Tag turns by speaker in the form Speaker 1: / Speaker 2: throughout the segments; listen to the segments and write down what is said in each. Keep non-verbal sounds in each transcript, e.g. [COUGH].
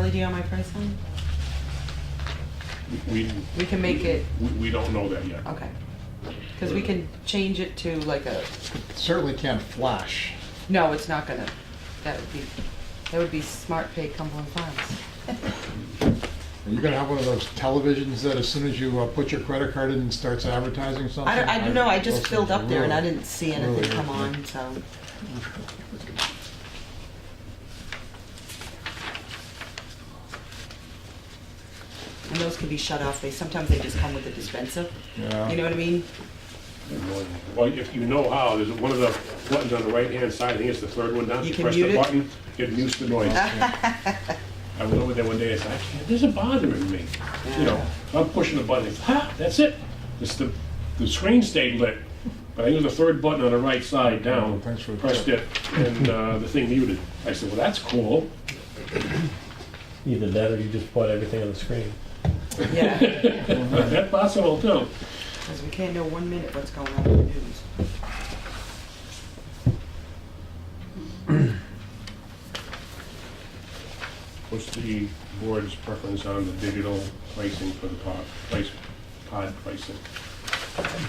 Speaker 1: LED on my person?
Speaker 2: We.
Speaker 1: We can make it-
Speaker 2: We, we don't know that yet.
Speaker 1: Okay. Because we can change it to like a,
Speaker 3: Certainly can't flash.
Speaker 1: no, it's not gonna, that would be, that would be smart pay Cumberland Farms.
Speaker 3: Are you gonna have one of those televisions that as soon as you uh, put your credit card in, it starts advertising something?
Speaker 1: I don't, I don't know, I just
Speaker 3: those
Speaker 1: filled
Speaker 3: things
Speaker 1: up there and I
Speaker 3: really-
Speaker 1: didn't see anything
Speaker 3: really
Speaker 1: come
Speaker 3: irritate.
Speaker 1: on, so. And those can be shut off, they, sometimes they just come with a dispenser,
Speaker 3: Yeah.
Speaker 1: you know what I mean?
Speaker 2: Well, if you know how, there's one of the buttons on the right-hand side, I think it's the third one down.
Speaker 1: You can
Speaker 2: press
Speaker 1: mute
Speaker 2: the
Speaker 1: it?
Speaker 2: button, It mutes
Speaker 1: [LAUGHS]
Speaker 2: the noise. I was over there one day, it's like, it isn't bothering me. You know, I'm pushing the button, it's, ha, that's it. It's the, the screen stayed lit, but I used the third button on the right side down.
Speaker 3: Thanks for the
Speaker 2: Pressed it,
Speaker 3: tip.
Speaker 2: and uh, the thing muted. I said, well, that's cool.
Speaker 4: Either that or you
Speaker 2: [LAUGHS]
Speaker 4: just put everything on the screen.
Speaker 1: Yeah,
Speaker 2: That's possible too.
Speaker 1: because we can't know one minute what's going on in the news.
Speaker 2: What's the board's preference on the digital pricing for the pod, price, pod pricing?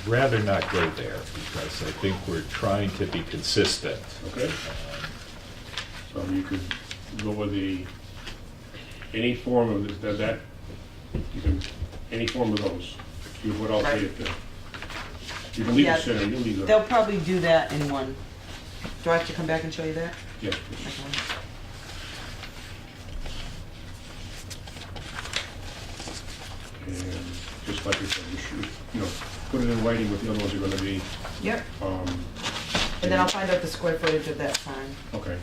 Speaker 5: rather not go there because I think we're trying to be consistent.
Speaker 2: Okay? So you could go with the, any form of th- that, that, you can, any form of those. You would all say it there. You can leave
Speaker 1: Yeah.
Speaker 2: it center, you leave
Speaker 1: They'll
Speaker 2: it,
Speaker 1: probably do that in one. Do I have to come back and show you that?
Speaker 2: yeah.
Speaker 1: Okay.
Speaker 2: And just like you said, you should, you know, put it in writing what the other ones are gonna be,
Speaker 1: Yep,
Speaker 2: um,
Speaker 1: and then I'll find out the square footage of that sign.
Speaker 2: okay.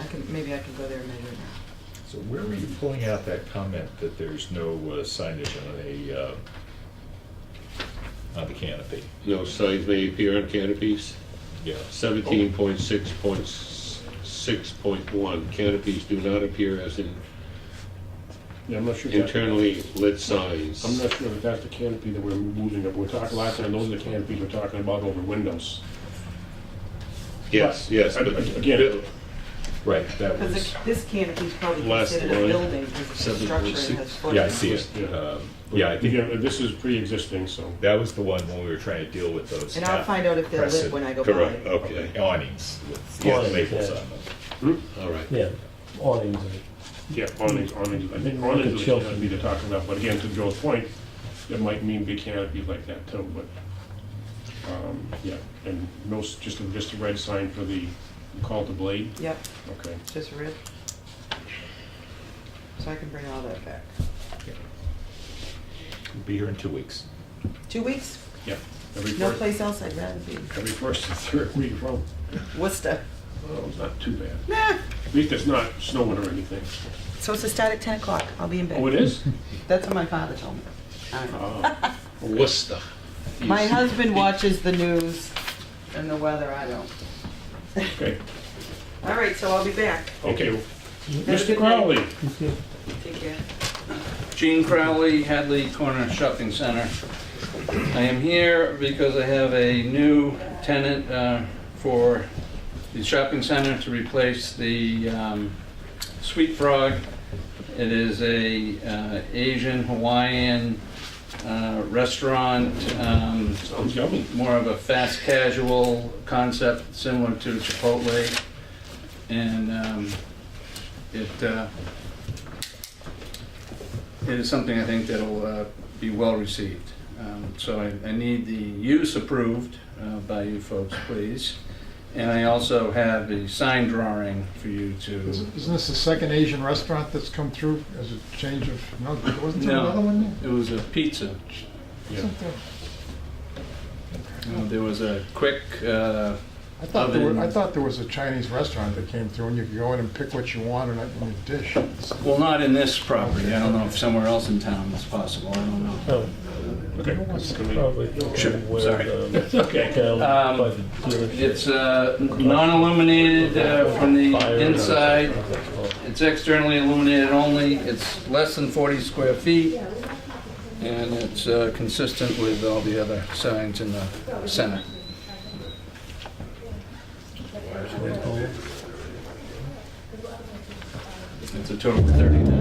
Speaker 1: I can, maybe I can go there and measure it now.
Speaker 5: So where were you pulling out that comment that there's no uh, signage on a, uh, on the canopy?
Speaker 6: No signs may appear on canopies.
Speaker 5: Yeah,
Speaker 6: Seventeen point six point six point one, canopies do not appear as in
Speaker 2: Yeah, I'm not sure. that-
Speaker 6: internally lit
Speaker 2: I'm
Speaker 6: signs.
Speaker 2: not sure if that's the canopy that we're moving up. We're talking, last time, those are the canopies we're talking about over windows.
Speaker 6: Yes, yes,
Speaker 2: But,
Speaker 6: but
Speaker 2: again-
Speaker 5: right, that
Speaker 1: Because
Speaker 5: was,
Speaker 1: this canopy's probably
Speaker 6: Last
Speaker 1: considered a
Speaker 6: line,
Speaker 1: building, because it's a
Speaker 6: seven
Speaker 1: structure and
Speaker 6: point
Speaker 1: it has
Speaker 6: six.
Speaker 1: footing.
Speaker 5: yeah, I see it.
Speaker 2: Yeah.
Speaker 5: Um, Yeah, I think
Speaker 2: Again, this is pre-existing, so.
Speaker 5: that was the one when we were trying to deal with those.
Speaker 1: And I'll
Speaker 5: not
Speaker 1: find out if they're lit
Speaker 5: crescent-
Speaker 1: when I go
Speaker 6: Correct,
Speaker 5: Oh.
Speaker 1: by.
Speaker 6: okay,
Speaker 5: Awnings with
Speaker 4: Yeah.
Speaker 5: labels on them.
Speaker 6: all right.
Speaker 4: Yeah, awnings and
Speaker 2: Yeah, awnings, awnings, I think awnings is the
Speaker 4: Shelter.
Speaker 2: canopy they're talking about, but again, to Joe's point, it might mean big canopies like that too, but, um, yeah, and no, s- just a, just a red sign for the, you call it the blade,
Speaker 1: Yep,
Speaker 2: okay.
Speaker 1: just red. So I can bring all that back.
Speaker 5: We'll Be here in two weeks.
Speaker 1: Two weeks,
Speaker 2: Yeah, every
Speaker 1: no
Speaker 2: first,
Speaker 1: place else I'd rather be.
Speaker 2: every first and third week from,
Speaker 1: Worcester.
Speaker 2: well, it's not too bad. At least it's not snowing or anything.
Speaker 1: So it's to start at ten o'clock, I'll be in
Speaker 2: Oh, it
Speaker 1: bed. [LAUGHS]
Speaker 2: is?
Speaker 1: That's what my father told me. I don't know.
Speaker 2: Ah,
Speaker 6: Worcester.
Speaker 1: My
Speaker 6: Yes.
Speaker 1: husband watches the news and the weather, I don't.
Speaker 2: okay,
Speaker 1: All right, so I'll be back.
Speaker 2: okay.
Speaker 1: Have a
Speaker 2: Mr.
Speaker 1: good night.
Speaker 2: Crowley,
Speaker 1: Take care.
Speaker 7: Gene Crowley, Hadley Corner Shopping Center. I am here because I have a new tenant uh, for the shopping center to replace the um, Sweet Frog. It is a uh, Asian Hawaiian uh, restaurant, um,
Speaker 2: sounds yummy.
Speaker 7: more of a fast casual concept similar to Chipotle. And um, it, uh, it is something I think that'll uh, be well received. Um, So I, I need the use approved uh, by you folks, please. And I also have a sign drawing for you to,
Speaker 3: Isn't isn't this the second Asian restaurant that's come through as a change of, no, wasn't there
Speaker 7: No.
Speaker 3: another one there?
Speaker 7: it was a pizza.
Speaker 2: Yeah.
Speaker 3: Isn't there?
Speaker 7: You know, Uh, There was a quick, uh,
Speaker 3: I thought, there were- I
Speaker 7: Oven.
Speaker 3: thought there was a Chinese restaurant that came through and you could go in and pick what you want and in your dish.
Speaker 7: well, not in this property, I don't know if somewhere else in town it's possible, I don't know.
Speaker 4: Oh,
Speaker 2: Okay. Can we-
Speaker 4: probably.
Speaker 7: Sure,
Speaker 4: where
Speaker 7: sorry.
Speaker 2: [LAUGHS]
Speaker 4: the-
Speaker 2: Okay.
Speaker 4: down
Speaker 7: Um,
Speaker 4: by the dealership.
Speaker 7: It's uh, non-illuminated uh, from
Speaker 4: Fire
Speaker 7: the
Speaker 4: and-
Speaker 7: inside. It's externally illuminated only. It's less than 40 square feet. And it's uh, consistent with all the other signs in the center. It's a total of 30,000.